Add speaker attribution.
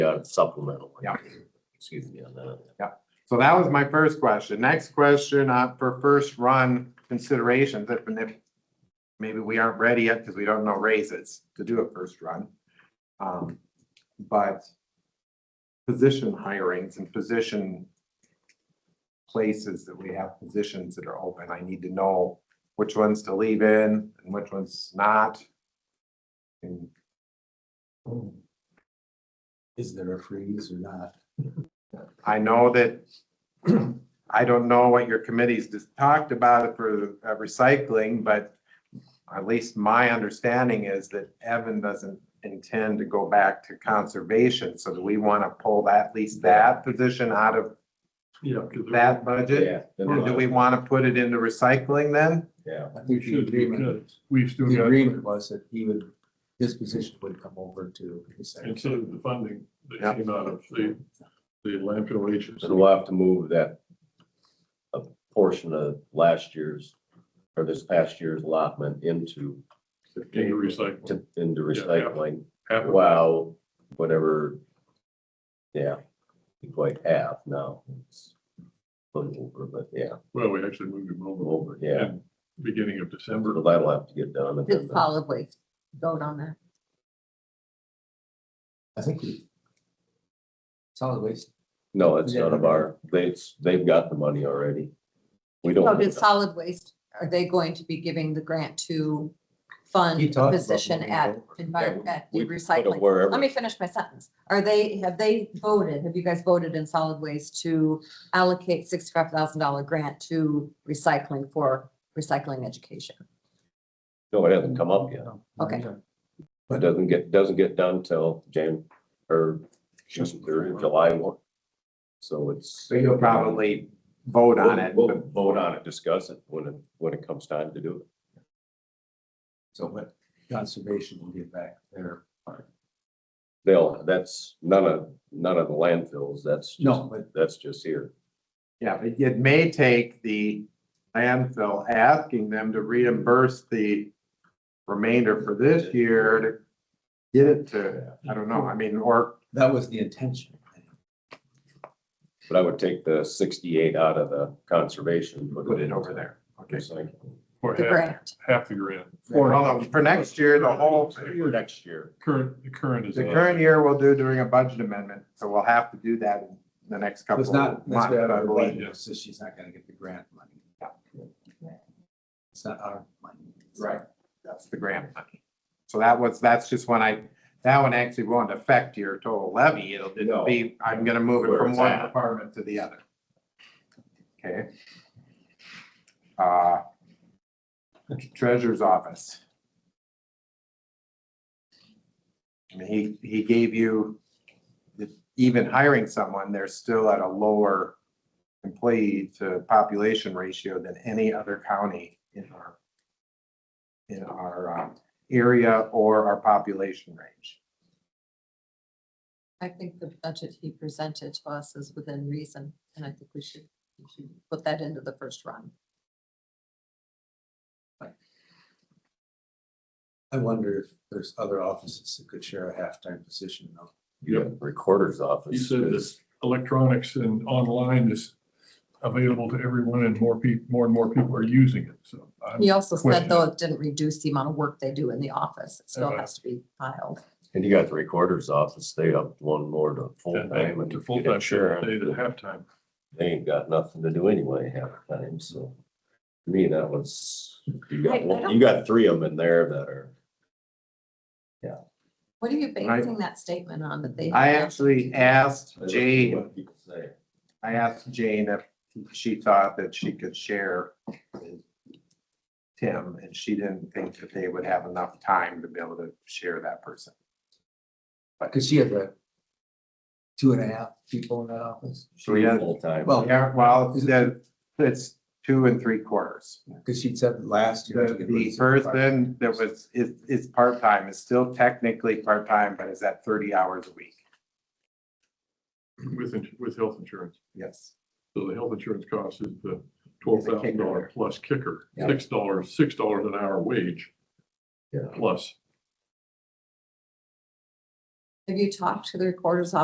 Speaker 1: got supplemental.
Speaker 2: Yeah.
Speaker 1: Excuse me on that.
Speaker 2: So that was my first question. Next question, uh, for first run considerations, if, and if maybe we aren't ready yet because we don't know raises to do a first run. Um, but position hirings and position places that we have positions that are open, I need to know which ones to leave in and which ones not. And
Speaker 3: Is there a freeze or not?
Speaker 2: I know that, I don't know what your committees just talked about for uh, recycling, but at least my understanding is that Evan doesn't intend to go back to conservation, so do we want to pull that, at least that position out of
Speaker 4: Yeah, because
Speaker 2: that budget? Or do we want to put it into recycling then?
Speaker 1: Yeah.
Speaker 3: I think
Speaker 4: we
Speaker 3: the
Speaker 4: should, we
Speaker 3: agreement-
Speaker 4: could, we still
Speaker 3: The
Speaker 4: got,
Speaker 3: agreement was that he would, his position would come over to the secretary.
Speaker 4: instead of the funding
Speaker 2: Yeah.
Speaker 4: that came out of the, the landfill agency.
Speaker 1: So we'll have to move that a portion of last year's or this past year's allotment into
Speaker 4: Into recycling.
Speaker 1: to into
Speaker 4: Yeah, yeah.
Speaker 1: recycling.
Speaker 4: Half of that.
Speaker 1: Wow, whatever. Yeah, be quite half now. It's A little over, but yeah,
Speaker 4: Well, we actually moved him over
Speaker 1: over, yeah.
Speaker 4: in beginning of December.
Speaker 1: So that'll have to get done. and then
Speaker 5: Did
Speaker 1: the-
Speaker 5: solid waste vote on that?
Speaker 3: I think we. Solid waste,
Speaker 1: No, it's none of our, they, it's- they've got the money already. We
Speaker 5: So
Speaker 1: don't.
Speaker 5: did solid waste, are they going to be giving the grant to fund
Speaker 3: He talked about
Speaker 5: position
Speaker 3: moving
Speaker 5: at
Speaker 3: over.
Speaker 5: environment, at
Speaker 1: We
Speaker 5: the
Speaker 1: put it
Speaker 5: recycling?
Speaker 1: Wherever.
Speaker 5: Let me finish my sentence. Are they, have they voted, have you guys voted in solid waste to allocate sixty-five thousand dollar grant to recycling for recycling education?
Speaker 1: No, it
Speaker 3: Mm.
Speaker 1: hasn't come up yet.
Speaker 5: Okay.
Speaker 1: It doesn't get, doesn't get done till Jan, or June or July one. So it's.
Speaker 2: So you'll probably vote on it.
Speaker 1: We'll we'll vote on it, discuss it when it, when it comes time to do it.
Speaker 3: so what conservation will get back there.
Speaker 1: They'll, that's none of, none of the landfills, that's, just-
Speaker 3: No, but
Speaker 1: that's just here.
Speaker 2: Yeah, but it may take the landfill asking them to reimburse the remainder for this year to get it to, I don't know, I mean, or,
Speaker 3: that was the intention.
Speaker 1: But I would take the sixty-eight out of the conservation.
Speaker 2: put it over there. Okay.
Speaker 1: Recycling.
Speaker 4: Or
Speaker 5: The
Speaker 4: half,
Speaker 5: grant,
Speaker 4: half the grant.
Speaker 2: Well, no, For next year, the whole,
Speaker 1: Next year.
Speaker 4: Current, the current is. uh,
Speaker 2: the
Speaker 4: on.
Speaker 2: current year we'll do during a budget amendment, so we'll have to do that in the next couple
Speaker 3: It's
Speaker 2: of
Speaker 3: not,
Speaker 2: months.
Speaker 3: that's what
Speaker 2: I
Speaker 3: I
Speaker 2: believe.
Speaker 3: believe, so she's not gonna get the grant money. It's not our money.
Speaker 2: Right, that's the grant money. So that was, that's just when I, that one actually won't affect your total levy. It'll, it'll
Speaker 1: No.
Speaker 2: be, I'm gonna move it
Speaker 1: Where
Speaker 2: from
Speaker 1: it's
Speaker 2: one
Speaker 1: at.
Speaker 2: department to the other. Okay. Uh, treasurer's office. I mean, he, he gave you, the- even hiring someone, they're still at a lower employee to population ratio than any other county in our in our um, area or our population range.
Speaker 5: I think the budget he presented to us is within reason, and I think we should, we should put that into the first run.
Speaker 3: I wonder if there's other offices that could share a half-time position though.
Speaker 1: Yeah, recorder's
Speaker 4: He
Speaker 1: office.
Speaker 4: said this electronics and online is available to everyone and more people, more and more people are using it, so. I'm-
Speaker 5: He
Speaker 2: Um,
Speaker 5: also said
Speaker 4: question.
Speaker 5: though it didn't reduce the amount of work they do in the office. It still
Speaker 4: Uh-huh.
Speaker 5: has to be filed.
Speaker 1: And you got the recorder's office, they up one more to
Speaker 4: And
Speaker 1: full-time.
Speaker 4: I-
Speaker 1: and
Speaker 4: To
Speaker 1: get
Speaker 4: full-time, sure,
Speaker 1: insurance.
Speaker 4: they did halftime.
Speaker 1: they ain't got nothing to do anyway half the time, so. to Me, that was, you
Speaker 5: I- I
Speaker 1: got, one-
Speaker 5: don't-
Speaker 1: you got three of them in there that are,
Speaker 5: What are you
Speaker 2: I-
Speaker 5: basing that statement on that they?
Speaker 2: I
Speaker 5: have?
Speaker 2: actually asked Jane,
Speaker 1: what people say.
Speaker 2: I asked Jane if she thought that she could share with Tim, and she didn't think that they would have enough time to be able to share that person.
Speaker 3: Cause she has a two and a half people in that office,
Speaker 2: Three
Speaker 1: Three full-time.
Speaker 3: Well,
Speaker 2: Yeah, well, the- it's two and three quarters.
Speaker 3: cause she said last year. she
Speaker 2: The,
Speaker 3: could
Speaker 2: the
Speaker 3: raise it to five.
Speaker 2: person that was, is, is part-time, is still technically part-time, but is at thirty hours a week.
Speaker 4: With, ins- with health insurance.
Speaker 2: Yes.
Speaker 4: So the health insurance cost is the twelve thousand dollar plus kicker,
Speaker 3: Yeah.
Speaker 4: six dollars, six dollars an hour wage
Speaker 1: Yeah.
Speaker 4: plus.
Speaker 5: Have you talked to the recorder's office